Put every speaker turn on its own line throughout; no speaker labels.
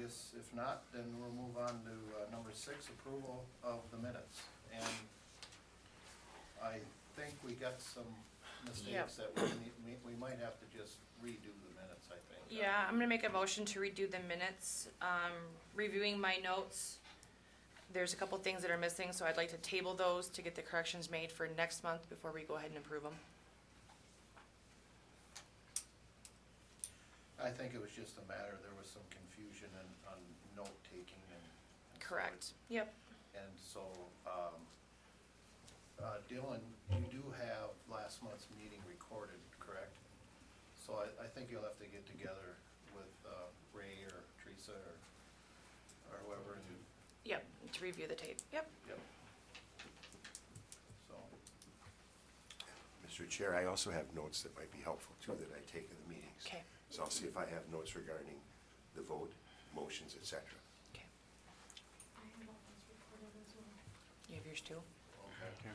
guess if not, then we'll move on to uh, number six, approval of the minutes. And I think we got some mistakes that we need, we- we might have to just redo the minutes, I think.
Yeah, I'm gonna make a motion to redo the minutes. Um, reviewing my notes, there's a couple things that are missing, so I'd like to table those to get the corrections made for next month before we go ahead and approve them.
I think it was just a matter, there was some confusion and, on note-taking and. and so
Correct. Yep.
it- And so, um, uh, Dylan, you do have last month's meeting recorded, correct? So I, I think you'll have to get together with uh, Ray or Teresa or, or whoever and,
Yep, to review the tape. Yep.
yep. So.
Mr. Chair, I also have notes that might be helpful too that I take in the meetings.
Okay.
So I'll see if I have notes regarding the vote, motions, et cetera.
Okay.
I have all those recorded as well.
You have yours too?
Okay.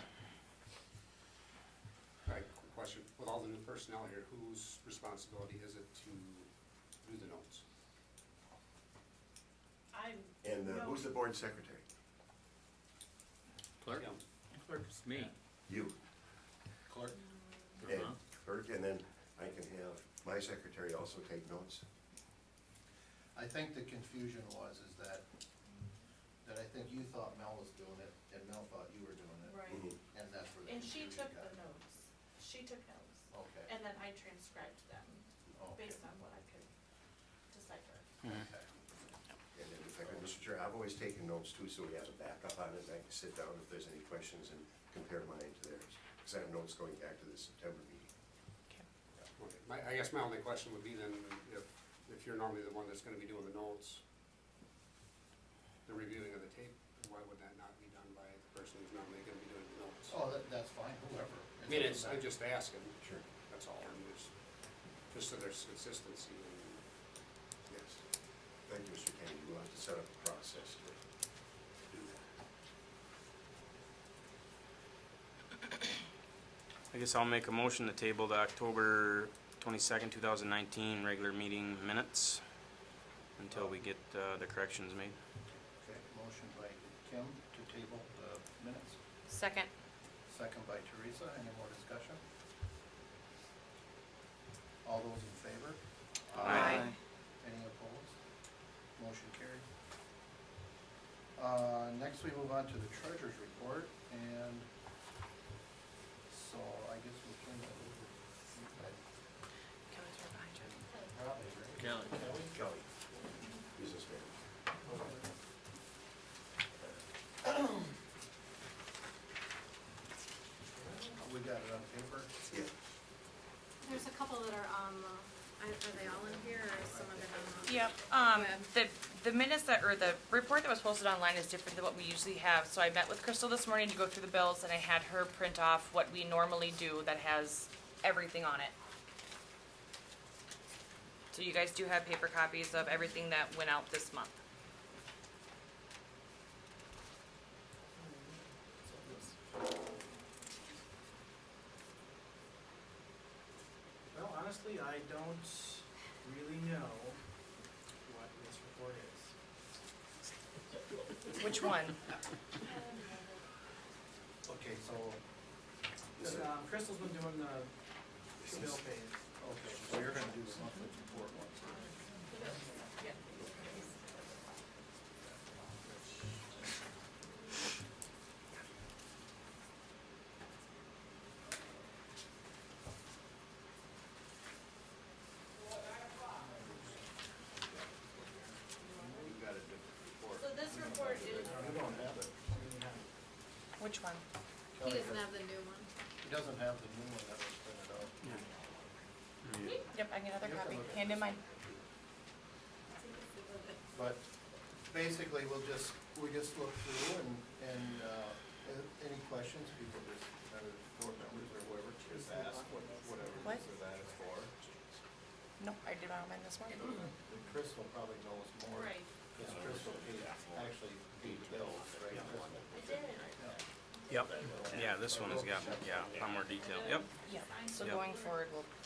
All right, quick question. With all the new personnel here, whose responsibility is it to do the notes?
I'm.
And uh, who's the board secretary?
Clerk?
Tim.
Clerk's me.
You.
Clerk?
And Kurt, and then I can have my secretary also take notes.
I think the confusion was is that, that I think you thought Mel was doing it, and Mel thought you were doing it.
Right.
Mhm.
And that's where the
And she took
confusion got.
the notes. She took notes.
Okay.
And then I transcribed them
Okay.
based on what I could decipher.
Okay.
And then if I could, Mr. Chair, I've always taken notes too, so we have a backup on it, and I can sit down if there's any questions and compare mine to theirs. Because I have notes going back to the September meeting.
Okay.
Okay. My, I guess my only question would be then, if, if you're normally the one that's gonna be doing the notes, the reviewing of the tape, why would that not be done by the person who's normally gonna be doing the notes?
Oh, that, that's fine, whoever.
I mean, it's, I'm just asking.
Sure.
That's all. I'm just, just so there's consistency and
Yes. Thank you, Mr. Kennedy. We'll have to set up a process to do that.
I guess I'll make a motion to table the October 22nd, 2019 regular meeting minutes until we get uh, the corrections made.
Okay, motion by Kim to table the minutes,
Second.
second by Teresa, any more discussion? All those in favor?
Aye.
Any opposed? Motion carried. Uh, Next, we move on to the treasurer's report, and so I guess we'll turn that over.
Kevin's right behind you.
Probably, right?
Kelly.
Kelly?
Kelly, business manager.
We got it on paper?
Yeah.
There's a couple that are on the, I- are they all in here or is some of it on the?
Yep, um, the, the minutes that, or the report that was posted online is different than what we usually have. So I met with Crystal this morning to go through the bills and I had her print off what we normally do that has everything on it. So you guys do have paper copies of everything that went out this month.
Well, honestly, I don't really know what this report is.
Which one?
Okay, so,
So, um, Crystal's been doing the the bill phase.
okay, so you're gonna do the monthly report one.
you've got a different report.
So this report is,
You don't have it.
Which one?
he doesn't have the new one.
He doesn't have the new one that was printed out.
Yep, I can get another copy. Hand in mine.
But basically, we'll just, we just look through and, and uh, a- any questions, people just, either board members or whoever, just ask what- whatever it is
What?
that is for.
No, I did my own mine this morning.
Crystal probably knows more.
Right.
Because Crystal paid- actually paid bills, right?
I
Crystal?
did.
Yeah.
Yep. Yeah, this one has got, yeah, a lot more detail. Yep.
Yeah, so
Yep.
going forward, we'll